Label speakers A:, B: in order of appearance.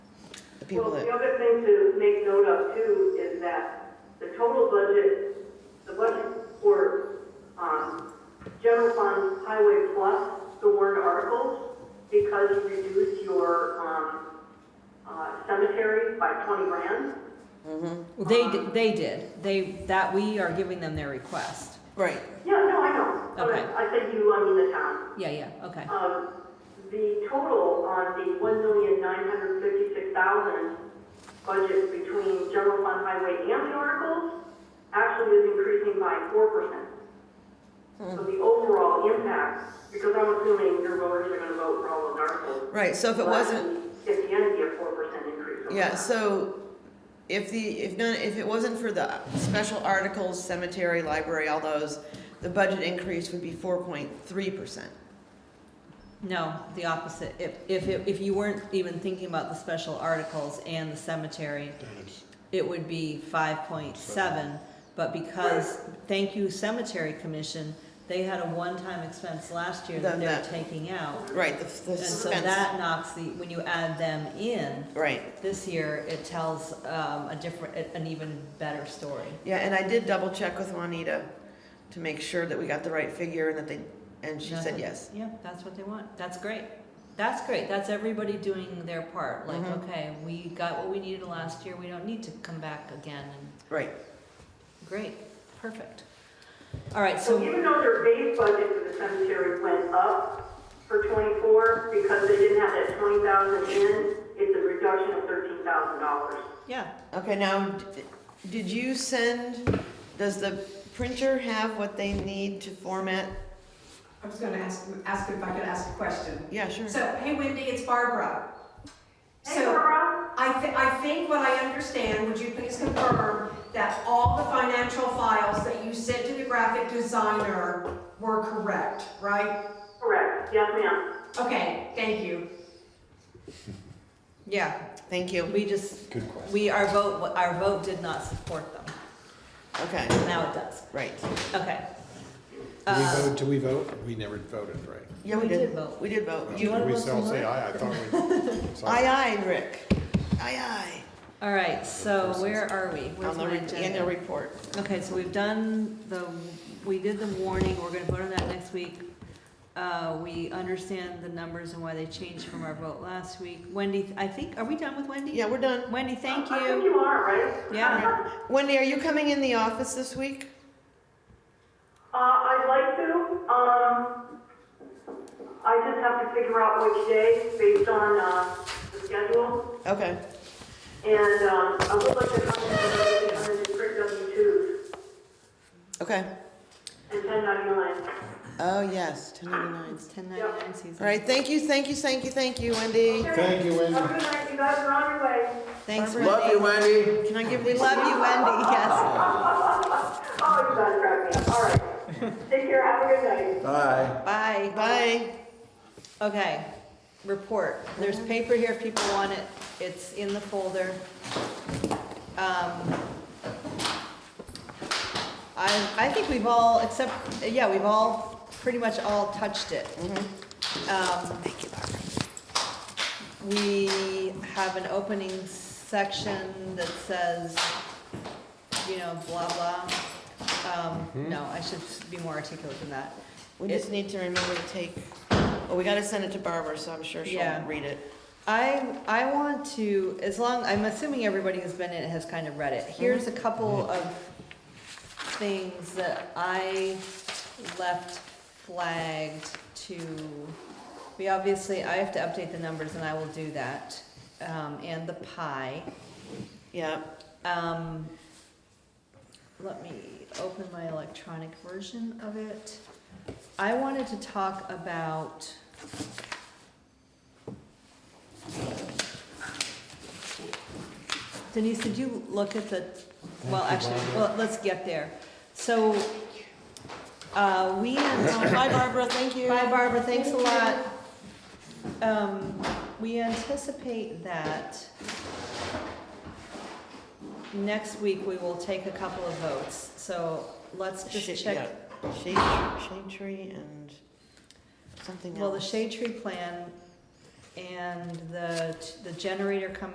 A: people
B: Well,
A: that,
B: the other thing to make note of too is that the total budget, the budget for, um, general fund highway plus the warrant articles, because you reduced your, um, uh, cemetery by twenty grand.
C: They,
A: Um,
C: d- they did, they, that, we are giving them their request.
A: right,
B: Yeah, no, I know. But
C: Okay.
B: I said you, I mean the town.
C: Yeah, yeah, okay.
B: Um, the total on the one million nine hundred fifty-six thousand budget between general fund highway and the articles actually is increasing by four percent. So
A: Hmm.
B: the overall impact, because I'm assuming your voters are gonna vote for all those articles.
A: right, so if it
B: but
A: wasn't,
B: At the end, you have four percent increase. over
A: yeah,
B: that.
A: so if the, if none, if it wasn't for the special articles, cemetery, library, all those, the budget increase would be four point three percent.
C: No, the opposite, if, if, it- if you weren't even thinking about the special articles and the cemetery, it would be five point seven, but because, thank you Cemetery Commission, they had a one-time expense last year that
A: Then
C: they're
A: that-
C: taking out.
A: Right, the, the
C: And so
A: suspense,
C: that knocks the, when you add them in,
A: right.
C: this year, it tells, um, a different, an even better story.
A: Yeah, and I did double check with Juanita to make sure that we got the right figure and that they, and she said
C: Nothing.
A: yes.
C: Yeah, that's what they want. That's great. That's great. That's everybody doing their part. Like,
A: Mhm.
C: okay, we got what we needed last year. We don't need to come back again. And
A: Right,
C: great, perfect. All right,
B: So
C: so
B: even though their base budget for the cemetery went up for twenty-four, because they didn't have that twenty thousand in, it's a reduction of thirteen thousand dollars.
C: yeah,
A: okay, now, d- did you send, does the printer have what they need to format?
D: I was gonna ask, ask if I could ask a question.
A: Yeah, sure.
D: So, hey Wendy, it's Barbara.
B: Hey,
D: So,
B: Laura,
D: I thi, I think what I understand, would you please confirm that all the financial files that you sent to the graphic designer were correct, right?
B: correct, yes ma'am.
D: Okay, thank you.
C: yeah.
A: Thank you.
C: We just
E: Good question.
C: we our vote our vote did not support them.
A: Okay,
C: Now it does.
A: right.
C: Okay.
E: Do we
C: Uh,
E: vote, do we vote? We never voted, right?
A: Yeah, we
C: We did
A: did.
C: vote.
A: We did vote.
C: You wanna
E: We
C: vote
E: still
C: for
E: say
C: her?
E: aye, I thought we. so-
A: Aye, aye, Rick. Aye,
C: all right. So where are we?
A: aye.
C: Where's
A: On the
C: my
A: re-
C: agenda?
A: annual report.
C: Okay, so we've done the, we did the warning, we're gonna vote on that next week. Uh, we understand the numbers and why they changed from our vote last week. Wendy, I think, are we done with Wendy?
A: Yeah, we're done.
C: Wendy, thank
B: I think
C: you.
B: you are, right?
C: Yeah.
A: Wendy, are you coming in the office this week?
B: Uh, I'd like to, um, I just have to figure out which day based on, uh, the schedule.
A: Okay,
B: And, um, I would like to come in and come in and print W twos
A: okay.
B: and ten ninety-nine.
A: Oh, yes, ten ninety-nine.
C: It's ten ninety-nine season.
A: All right, thank you, thank you, thank you, thank you, Wendy.
E: Thank you, Wendy.
B: Have a good night, you guys are on your way.
C: Thanks, Wendy.
A: Barbara.
F: Love you, Wendy.
A: Can I give
C: We
A: you
C: love you, Wendy, yes.
B: Oh, you guys crack me up. All right. Take care. Have a good night.
F: Bye.
C: Bye.
A: Bye.
C: Okay, report. There's paper here if people want it. It's in the folder. Um, I, I think we've all, except, yeah, we've all, pretty much all touched it. Mm-hmm. Thank you, Barbara. We have an opening section that says, you know, blah, blah. Um, No, I should be more articulate than that.
A: We
C: It-
A: just need to remember to take, well, we gotta send it to Barbara, so I'm sure she'll
C: Yeah.
A: read it.
C: I, I want to, as long, I'm assuming everybody who's been in it has kind of read it. Here's a couple of things that I left flagged to, we obviously, I have to update the numbers and I will do that, um, and the pie.
A: Yeah,
C: Um, let me open my electronic version of it. I wanted to talk about. Denise, did you look at the, well, actually, well, let's get there. So, uh, we. Hi Barbara, thank you. Bye Barbara, thanks a lot. Um, we anticipate that next week we will take a couple of votes, so let's
A: shade,
C: just
A: yeah,
C: check.
A: shade, shade tree and something else.
C: Well, the shade tree plan and the, the generator coming